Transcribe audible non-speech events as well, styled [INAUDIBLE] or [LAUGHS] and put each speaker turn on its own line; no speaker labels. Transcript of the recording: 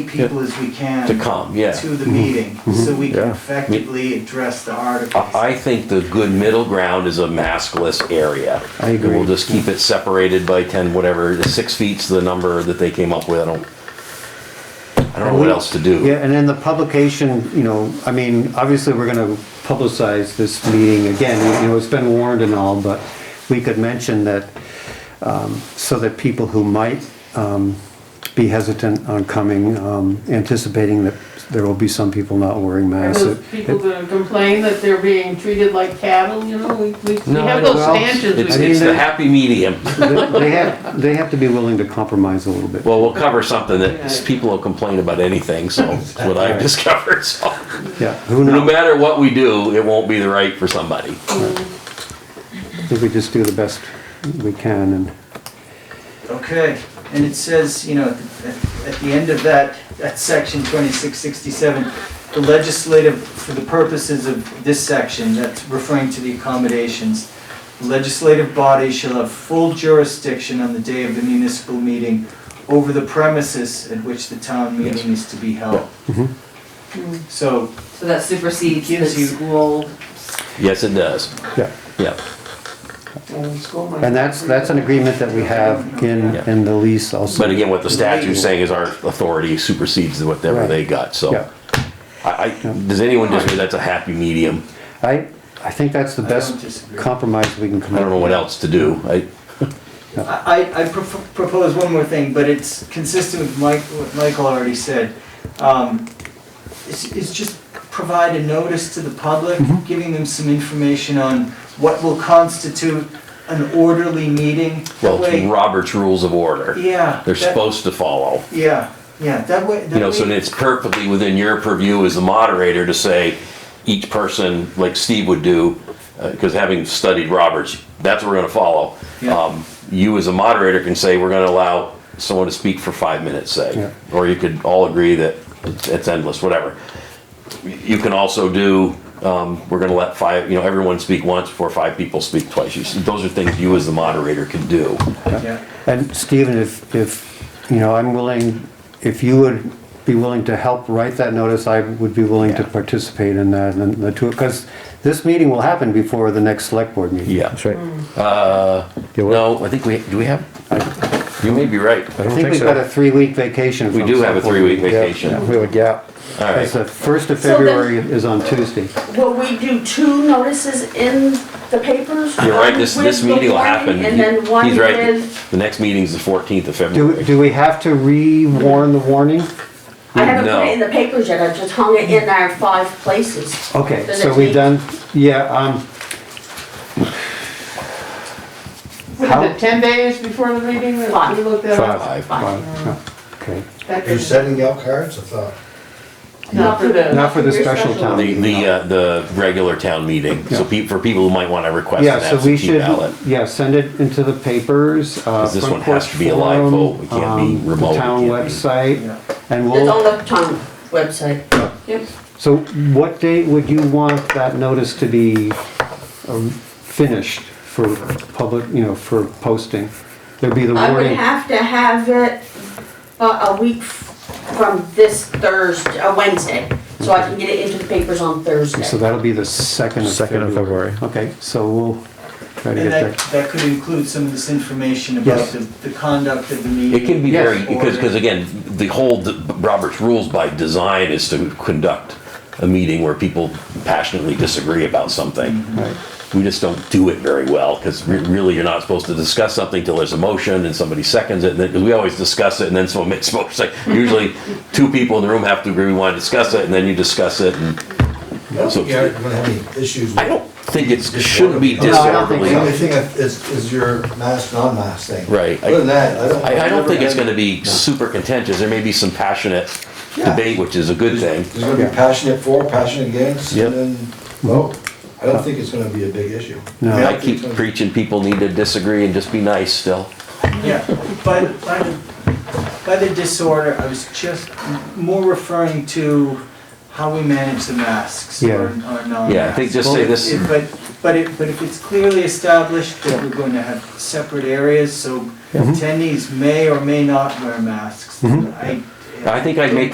people as we can.
To come, yeah.
To the meeting, so we can
Yeah.
effectively address the articles.
I think the good middle ground is a maskless area.
I agree.
We'll just keep it separated by ten, whatever, six feet's the number that they came up with, I don't, I don't know what else to do.
Yeah, and then the publication, you know, I mean, obviously, we're gonna publicize this meeting again, you know, it's been warned and all, but we could mention that, um, so that people who might, um, be hesitant on coming, um, anticipating that there will be some people not wearing
Are
masks.
those people that complain that they're being treated like cattle, you know, we, we we
No, I
have those
don't-
stanchions. we
It's,
I
can-
it's
mean,
the
they-
happy medium.
They they have, they have to be willing to compromise a little bit.
Well, we'll cover something that people will complain about anything, so
[LAUGHS]
that's what I've discovered, so.
Yeah, who
No
knows,
matter what we do, it won't be the right for somebody.
I think we just do the best we can and.
Okay, and it says, you know, at the- at the end of that, that section twenty-six sixty-seven, the legislative, for the purposes of this section, that's referring to the accommodations, the legislative body shall have full jurisdiction on the day of the municipal meeting over the premises at which the town meeting is to be held. So
So that supersedes the
Gives you-
school.
Yes, it does,
Yeah.
yeah.
And that's, that's an agreement that we have in, in the lease also.
But again, what the statute's saying is our authority supersedes whatever
Right.
they got, so.
Yeah.
I, I, does anyone disagree that's a happy medium?
I, I think that's the
I don't
best
disagree.
compromise we can come
I
up with.
don't know what else to do. I,
I, I- I prop- propose one more thing, but it's consistent with Mike, what Michael already said. Um, Is, is just provide a notice to the public,
Mm-hmm.
giving them some information on what will constitute an orderly meeting. That
well, it's
way-
Robert's Rules of Order.
Yeah.
They're
that-
supposed to follow.
Yeah, yeah, that way. that
You know, so
way-
it's perfectly within your purview as the moderator to say, each person, like Steve would do, because having studied Roberts, that's what we're gonna follow.
Yeah.
Um, You as a moderator can say, we're gonna allow someone to speak for five minutes,
Yeah.
say. Or you could all agree that it's it's endless, whatever. You can also do, um, we're gonna let five, you know, everyone speak once before five people speak twice. You s- Those are things you as the moderator can do.
yeah.
And Stephen, if, if, you know, I'm willing, if you would be willing to help write that notice, I would be willing to
Yeah.
participate in that and the two, because this meeting will happen before the next select board meeting.
Yeah. Uh,
That's right.
Mm.
Yeah, well-
No, I think we, do we have, you may be right.
I don't
I think
think
we've
so.
got a three-week vacation.
We
from
do have a
select board
three-week
meeting.
Yeah,
vacation.
We have a gap.
All
Because
right.
the first of
So then-
February is on Tuesday.
Will we do two notices in the papers?
You're right, this,
One
this
with the
meeting will
warning
happen.
And then one
He's right.
with,
The next meeting's the fourteenth of
Do,
February.
do we have to re-warn the warning?
I haven't put
Mm, No.
it in the papers yet, I've just hung it in our five places.
Okay,
Does
so
it
we
take-
done, yeah, um,
What is
How-
it, ten days before the meeting? that
Five.
We looked at it?
Five.
uh, okay.
That
Are you
doesn't-
sending out cards? I thought,
Not for the.
Not for the
Your
special
special
town.
The, the, uh, the regular town meeting, so pe- for people who might wanna request
Yeah,
an
so we
absentee
should,
ballot.
yeah, send it into the papers. uh,
'Cause this
front
one has
porch
to be a live
forum,
vote. It can't be
um,
remote.
The
It
town
can't be-
website,
Yeah.
and
It's on
we'll,
the town website.
so what date would you want that notice to be um, finished for public, you know, for posting? There'd be the
I would
warning,
have to have it uh, a week f- from this Thursday, uh, Wednesday, so I can get it into the papers on Thursday.
so that'll be the second of
Second of
February.
February.
Okay, so we'll try to get
And that,
that.
that could include some of this information about
Yes.
the, the conduct of the meeting.
It can be very,
order.
because, because again, the whole, d- Robert's rules by design is to conduct a meeting where people passionately disagree about something.
Mm-hmm. Right.
We just don't do it very well, because really, you're not supposed to discuss something till there's a motion and somebody seconds it, and then, because we always discuss it and then someone makes a motion. It's like, Usually, two people in the room have to agree, we want to discuss it, and then you discuss it, and so,
yeah, you're gonna have any issues.
I don't think it's, it shouldn't be
No,
I don't think
disorderly.
The
so.
only thing is, is your mask, non-mask thing.
Right.
Other than that, I don't.
I, I don't
never
think it's
had-
gonna be super contentious, there may be some passionate
Yeah.
debate, which is a good thing.
There's gonna be passionate for, passionate against,
Yep.
and then vote. I don't think it's gonna be a big issue.
No.
And
don't
I
think
keep
it's gonna-
preaching people need to disagree and just be nice still.
Yeah, by, by, the- by the disorder, I was just more referring to how we manage the masks
Yeah.
or, or non-masks.
Yeah, I think just say this,
If- But, but it, but if it's clearly established that we're going to have separate areas, so attendees may or may not wear masks, I.
I think I'd make